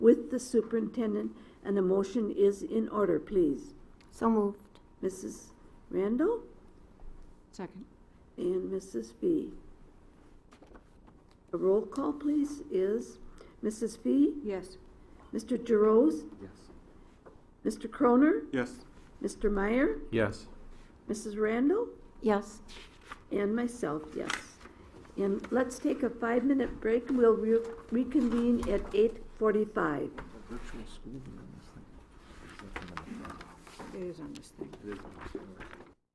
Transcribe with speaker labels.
Speaker 1: superintendent, and a motion is in order, please.
Speaker 2: So moved.
Speaker 1: Mrs. Randall
Speaker 3: Second.
Speaker 1: and Mrs. Fee. A roll call, please, is Mrs. Fee,
Speaker 3: Yes.
Speaker 1: Mr. Jeroz,
Speaker 4: Yes.
Speaker 1: Mr. Croner,
Speaker 4: Yes.
Speaker 1: Mr. Meyer,
Speaker 4: Yes.
Speaker 1: Mrs. Randall,
Speaker 2: Yes.
Speaker 1: and myself, yes. And let's take a five-minute break, we'll re- reconvene at eight forty-five.
Speaker 4: Virtual school.
Speaker 3: It is on this thing.
Speaker 4: It is.